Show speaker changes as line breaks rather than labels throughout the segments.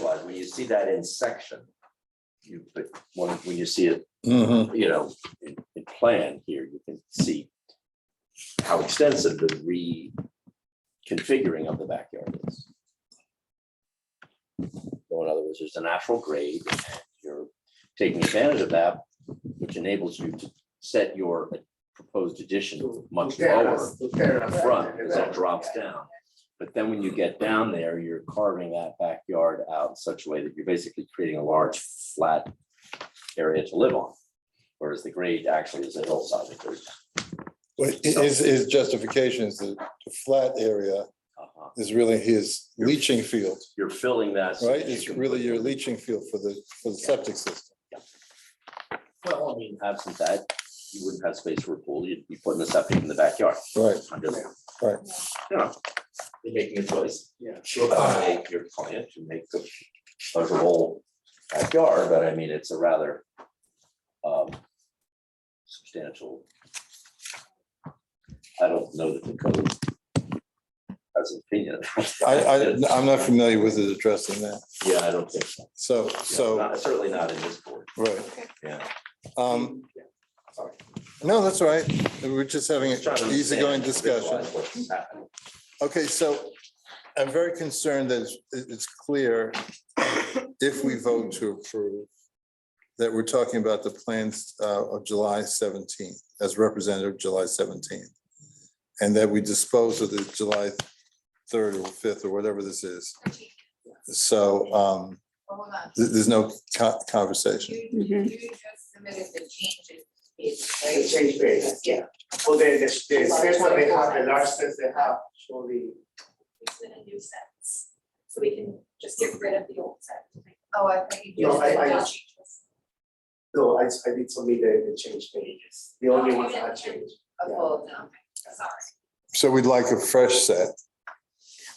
wise, when you see that in section, you, but when, when you see it,
Mhm.
you know, in, in plan here, you can see how extensive the reconfiguring of the backyard is. So in other words, there's a natural grade, and you're taking advantage of that, which enables you to set your proposed addition much lower
lower
front, because that drops down. But then when you get down there, you're carving that backyard out in such a way that you're basically creating a large flat area to live on. Whereas the grade actually is a hillside. that goes down.
But i- His, his justification is that the flat area
Uh-huh.
is really his leaching field,
You're filling that. so
right?
that you
It's
can
really
put-
your leaching field for the, for the septic system.
Well, I mean, absent that, you wouldn't have space for a pool. You'd be putting a septic in the backyard.
Right,
I'm just,
right.
you know, you're making a choice.
Yeah.
Sure, I make your client to make the pleasurable backyard, but I mean, it's a rather um, substantial. I don't know that the code has an opinion.
I, I, I'm not familiar with it addressing that.
Yeah, I don't think so.
So,
Yeah,
so,
not- Certainly not in this board.
right.
Yeah.
Um,
Sorry.
no, that's all right. We're just having an
Just trying to
easygoing
understand,
discussion.
visualize what's happening.
Okay, so I'm very concerned that it's- it- it's clear if we vote to approve that we're talking about the plans uh, of July 17th, as representative July 17th. And that we dispose of the July 3rd or 5th or whatever this is. So um,
Hold on,
th- there's no co-
you,
conversation.
you just submitted the changes, it's,
They
right?
change base.
Yeah.
Well, the, the, the space what they have, the large space they have, surely.
It's in a new sentence, so we can just get rid of the old sentence.
Oh, I thought you
No,
just
I-
did
I
that.
just- No, I, I did submit the, the change pages, the only ones that I changed.
Oh, well, no, sorry.
So we'd like a fresh set.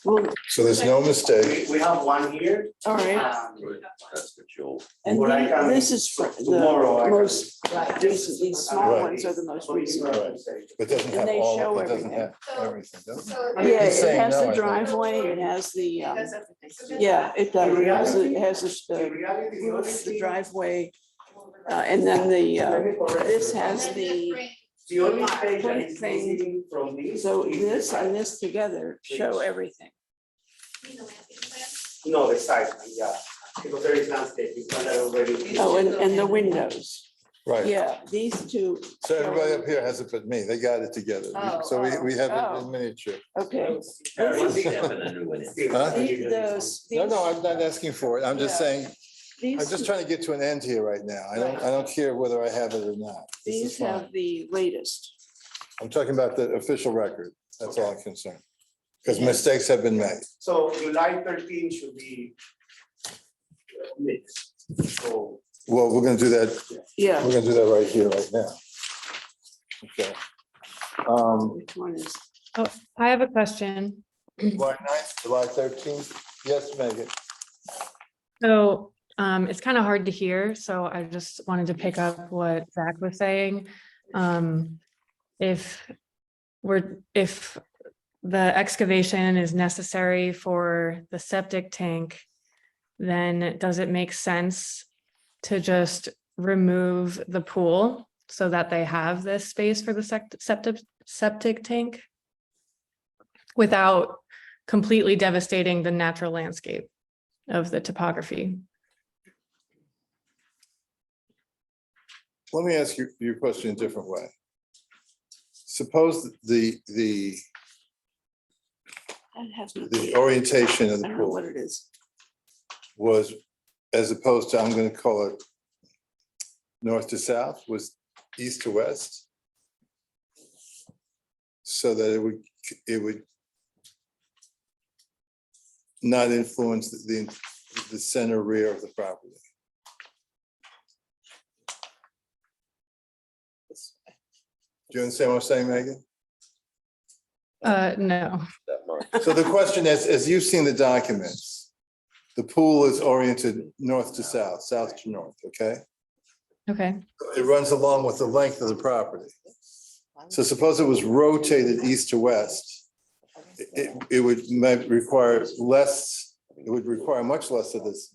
Well,
So there's no mistake.
We, we have one here.
all right,
um,
That's what you'll.
and
Well, I
then
can-
this is fr-
tomorrow I
the
can-
most
Right.
recent, these small
Right.
ones are the most
Only
recent.
what I'm saying.
It doesn't
And
have
they
all,
show
it doesn't
everything.
have everything, does it?
So.
I mean,
Yeah,
He's
it
saying
has
no, I
the
think.
driveway, it has the, um,
Because of- so then-
yeah, it does, it has, the-
reality-
it has the,
The
uh,
reality, the only
roof, the
thing.
driveway, uh, and then the,
let
uh,
me correct
this
you.
And
has
then
the-
bring-
The only page that is
thing-
missing from this.
so
is
this
the
and this together show everything.
you know, landscape plan.
No, the site, plan, yeah, because there is landscaping, but that already.
Oh, and, and the windows,
Right.
yeah, these two,
So everybody up here has it but me. They got it together.
Oh,
So we, we have it in
oh.
miniature.
okay.
Everyone's stepping a new one in.
Huh?
The- Those,
No, no,
these,
I'm not asking for it. I'm just
Yeah.
saying, I'm
these,
just trying to get to an end here right now. I don't, I don't care whether I have it or not. This is
these
fine.
have the latest.
I'm talking about the official record. That's all I'm concerned. Because mistakes have been made.
So July thirteen should be. uh, mixed. So,
Well, we're gonna do that,
Yeah,
we're gonna do that right here, right now. Okay. Um,
which one is,
I have a question.
July 9th, July thirteenth. Yes, Megan.
So um, it's kind of hard to hear, so I just wanted to pick up what Zach was saying. Um, if we're, if the excavation is necessary for the septic tank, then does it make sense to just remove the pool so that they have this space for the sect- septic, septic tank? Without completely devastating the natural landscape? of the topography.
Let me ask you your question a different way. Suppose the, the,
that has nothing.
the orientation of
I
the
don't know
pool
what it is.
was, as opposed to, I'm gonna call it north to south, was east to west. So that it would, it would not influence the, the center rear of the property. Do you understand what I'm saying, Megan?
Uh, no,
So the question is, as you've seen the documents, the pool is oriented north to south, south to north, okay?
okay,
It runs along with the length of the property. So suppose it was rotated east to west, it, it would might require less, it would require much less of this